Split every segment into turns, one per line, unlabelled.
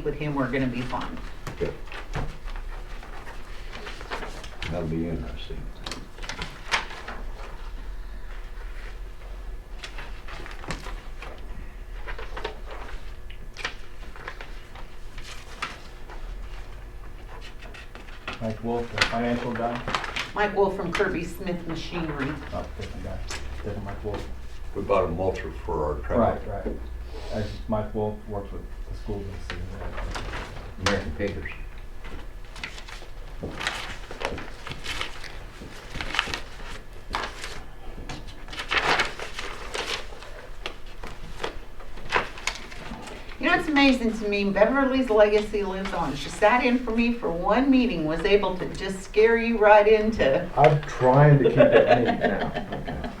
with him, we're gonna be fine.
Okay. That'll be interesting.
Mike Wolf, the financial guy,
Mike Wolf from Kirby Smith Machinery.
oh, different guy, different Mike Wolf.
We bought a mulcher for our trailer.
Right, right. That's just Mike Wolf works with the schools and city.
American Painters.
You know, it's amazing to me, Beverly's legacy lives on. She sat in for me for one meeting, was able to just scare you right into,
I'm trying to keep it neat now.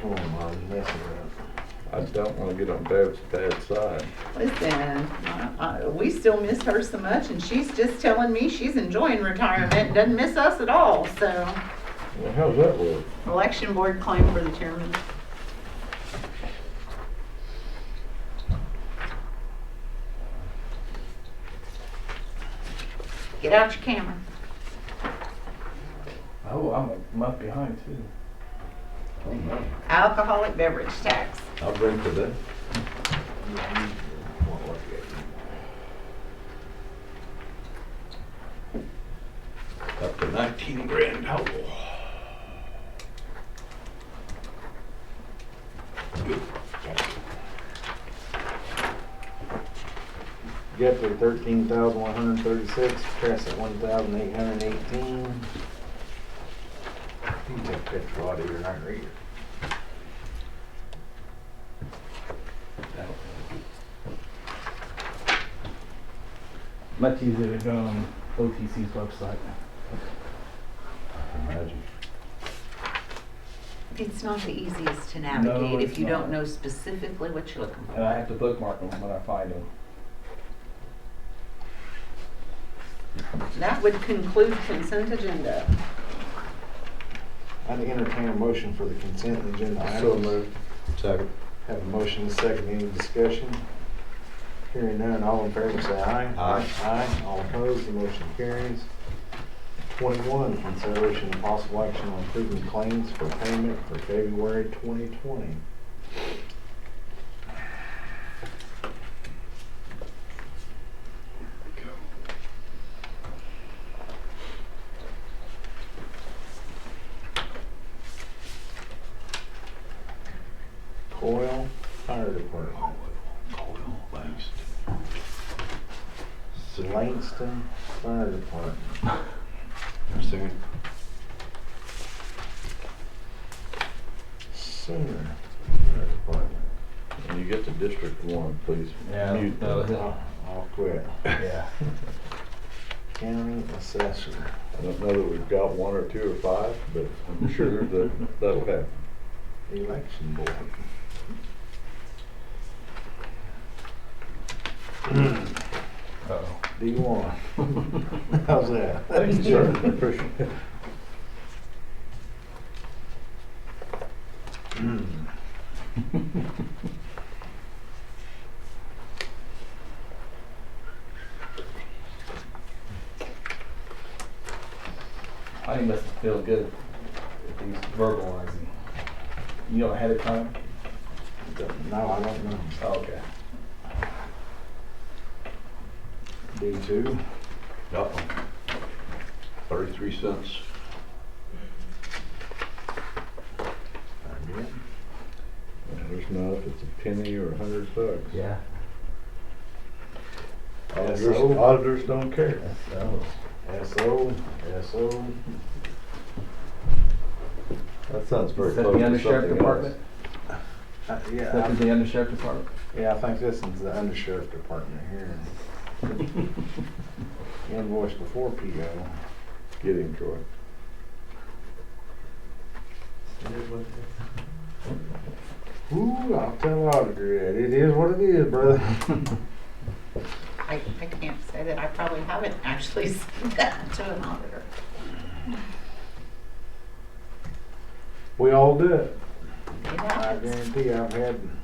Come on, Mom, mess around.
I don't want to get on Deb's bad side.
listen, I- I- we still miss her so much, and she's just telling me she's enjoying retirement, and doesn't miss us at all, so.
Well, how's that work?
Election board claim for the chairman. Get out your camera.
Oh, I'm a month behind too.
Oh, no.
Alcoholic beverage tax.
I'll bring for that. Up to nineteen grand total.
Guthrie, thirteen thousand one hundred thirty-six, Crescent, one thousand eight hundred eighteen. You can take a picture out of your night reader.
Much easier to go on OTC's website.
Imagine.
It's not the easiest to
No,
navigate
it's
if you don't
not.
know specifically what you're looking
And
for.
I have to bookmark them when I find them.
That would conclude consent agenda.
I'd entertain a motion for the consent agenda items.
So moved. Second.
Have a motion and a second, any discussion? Hearing none, all in favor say aye.
Aye.
Aye, all opposed, the motion carries. Twenty-one, consideration and possible action on approving claims for payment for February twenty twenty. Coyle Fire Department,
Thanks.
Langston Fire Department.
Second.
Sooner. Fire Department.
When you get to District One, please
Yeah,
mute
that was
them.
it.
I'll I'll quit.
Yeah.
County Assessor.
I don't know that we've got one or two or five, but I'm sure that that'll happen.
Election Board.
Uh-oh.
Do you want? How's that?
Thank you, sir. Appreciate it.
I think it must feel good if he's verbalizing. You know ahead of time?
No, I don't know.
Oh, okay.
D two,
Got one. Thirty-three cents.
I did.
There's not if it's a penny or a hundred bucks.
Yeah.
Auditors,
SO.
auditors don't care.
So,
SO, SO.
That sounds
is that the undersheriff department?
Uh,
Is
Yeah,
that
I-
the undersheriff department?
yeah, I think this is the undersheriff department here. Invoice before PO.
Get him, Troy.
Ooh, I'll tell auditor that. It is what it is, brother.
I, I can't say that, I probably haven't actually said that to an auditor.
We all do it.
It
I
happens.
guarantee I've had